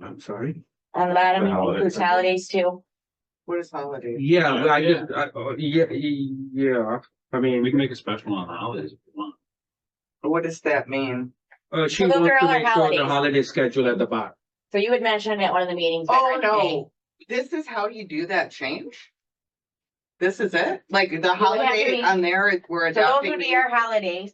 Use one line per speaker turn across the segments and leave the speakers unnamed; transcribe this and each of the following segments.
I'm sorry.
On the bottom
The holidays.
includes holidays too.
What is holiday?
Yeah, I
Yeah.
just, I, oh, yeah, yeah, I
We
mean,
can make a special on holidays if we want.
What does that mean?
uh, she
Well, those
wants
are
to
all our
make sure the
holidays.
holiday schedule at the bottom.
So you had mentioned at one of the meetings. I
Oh,
read today.
no, this is how you do that change? This is it? Like the
have to
holiday
be-
on there, is- we're
So those
adopting.
would be our holidays.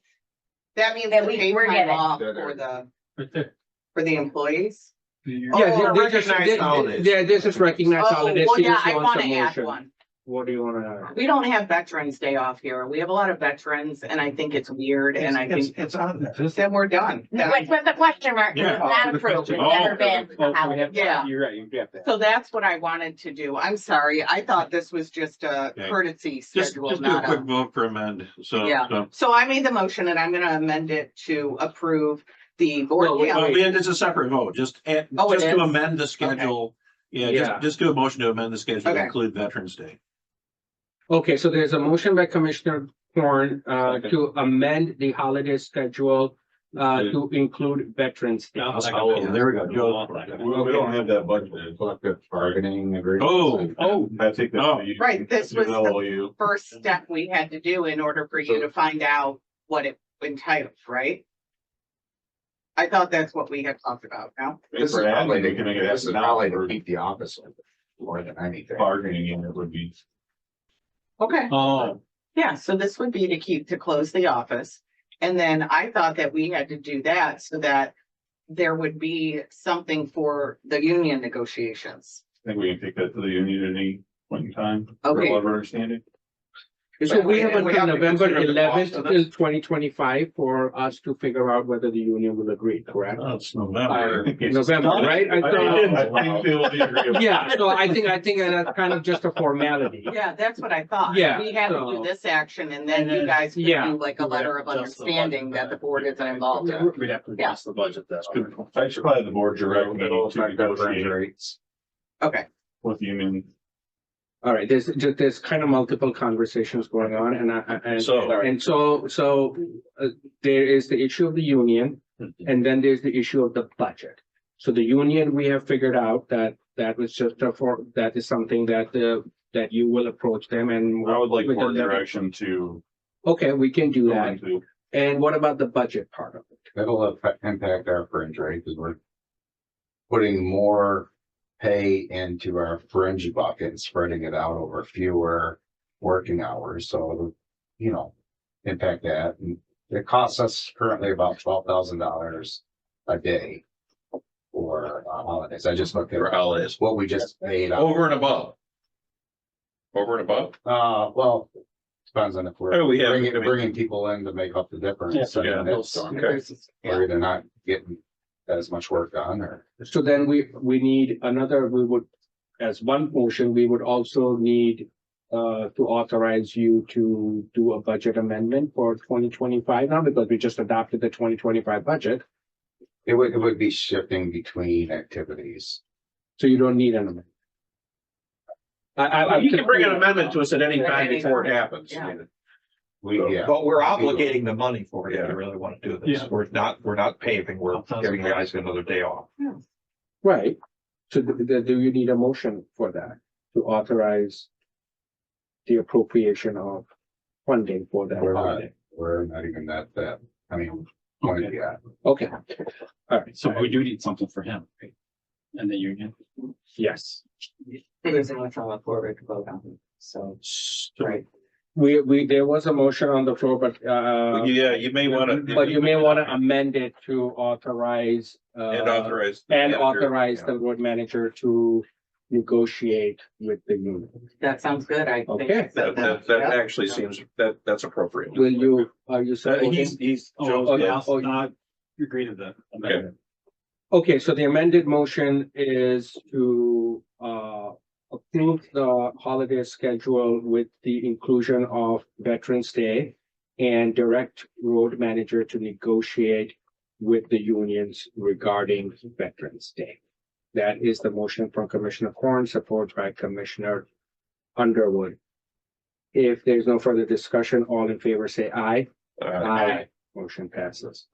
That means
that
the
we-
paid
we're
time
given.
off
That
for
are-
the,
Right there.
for the employees?
Yeah,
Oh,
thi- this is,
recognized
thi-
holidays.
thi- yeah, this is recognized
Oh,
holidays.
well,
She
yeah,
just
I
wants a
wanna add
motion.
one.
What do you wanna?
We don't have Veterans Day off here. We have a lot of veterans and I think it's weird and I
It's,
think
it's on there.
then we're done.
With, with the question mark, 'cause
Yeah. Oh,
it's not approved, it's never been a holiday.
Yeah.
You're right, you get that.
So that's what I wanted to do. I'm sorry. I thought this was just a
Okay.
courtesy
Just,
schedule,
just do a
not
quick
a.
vote for amend, so,
Yeah.
so.
So I made the motion and I'm gonna amend it to approve the board.
Well, we-
calendar.
And it's a separate vote, just, and,
Oh, it
just to
is?
amend the schedule. Yeah,
Yeah.
just, just do a motion to amend the schedule, to
Okay.
include Veterans Day.
Okay, so there's a motion by Commissioner Corn, uh,
Second.
to amend the holiday schedule, uh,
Yeah.
to include Veterans Day.
Oh, There we go, Joe.
We, we don't have that budgeted, collective bargaining agreement.
Oh,
Oh,
I think
Oh.
that's. you-
Right, this was
you
the-
know, you-
First step we had to do in order for you to find out what it entitles, right? I thought that's what we had talked about now.
If
This is
we're
probably,
adding, we can make it
this is
happen now,
probably to
or
keep the office open more than anything.
bargaining unit would be.
Okay.
oh,
Yeah, so this would be to keep, to close the office. And then I thought that we had to do that so that there would be something for the union negotiations.
I think we can take that to the union at any point in time. for
Okay.
Whatever understanding.
so we have
And we
until
have to
November
consider the cost
eleventh
of
till twenty twenty-five for us to figure out whether the union will agree, correct?
that's
Uh,
Oh, November.
November, right? I
I think-
thought-
I think they will be agreeable.
Yeah, so I think, I think that's kind of just a formality.
Yeah, that's what I thought.
Yeah,
We had to
so-
do this action and then
And
you
then-
guys could
yeah,
do like a letter of understanding that the board isn't involved in.
We'd have to
Yeah.
adjust the budget, that's good.
I should probably the board direct me
Middle of
to negotiate
February.
Okay,
with the union.
All right, there's, ju- there's kind of multiple conversations going on and I, I- and,
So-
and so, so uh, there is the issue of the union and then there's the issue of the budget. So the union, we have figured out that that was just a for, that is something that the, that you will approach them and.
I would like
with the
board
letter-
direction to.
Okay, we can do
go
that.
into-
And what about the budget part of it?
That'll affect- impact our fringe, right? Because we're putting more pay into our fringe bucket and spreading it out over fewer working hours. So, it'll, you know, impact that. And it costs us currently about twelve thousand dollars a day for uh, holidays. I just looked at
for holidays,
what we just made. out.
over and above. Over and above,
Uh, well, depends on if
Oh,
we're
we have-
bringing, bringing people in to make up the difference.
Yeah,
and that's-
Hillsong.
We're either not getting as much work done or.
So then we, we need another, we would, as one motion, we would also need uh, to authorize you to do a budget amendment for twenty twenty-five now, because we just adopted the twenty twenty-five budget,
It would, it would be shifting between activities.
so you don't need an amendment. I, I.
You can bring an amendment to us at any time before it happens.
Yeah.
We, yeah,
But we're obligating the money for it, if you really want to do
Yeah.
this. We're not, we're not paving, we're
Thousand
giving the guys another day off.
Right, so th- th- do you need a motion for that, to authorize the appropriation of funding for that
We're not.
holiday?
we're not even that, that, I mean, point of yeah.
Okay,
So we do need something for him. right? And the union.
yes.
it is an electronic forward to vote on, so, right.
We, we, there was a motion on the floor, but, uh,
yeah, you may wanna.
but you may want to amend it to authorize, uh,
And authorize. the
and
manager.
authorize the road manager to negotiate with the union.
That sounds good. I think.
Okay.
That, that, that actually seems, that, that's appropriate.
Will you, are
Uh,
you
So
supporting?
he's, he's.
Oh,
Joe's-
okay.
yeah.
Oh,
Not agree to the amendment.
Okay, so the amended motion is to, uh, approve the holiday schedule with the inclusion of Veterans Day and direct road manager to negotiate with the unions regarding Veterans Day. That is the motion from Commissioner Corn, supported by Commissioner Underwood. If there's no further discussion, all in favor say aye.
Uh,
Aye. Motion passes.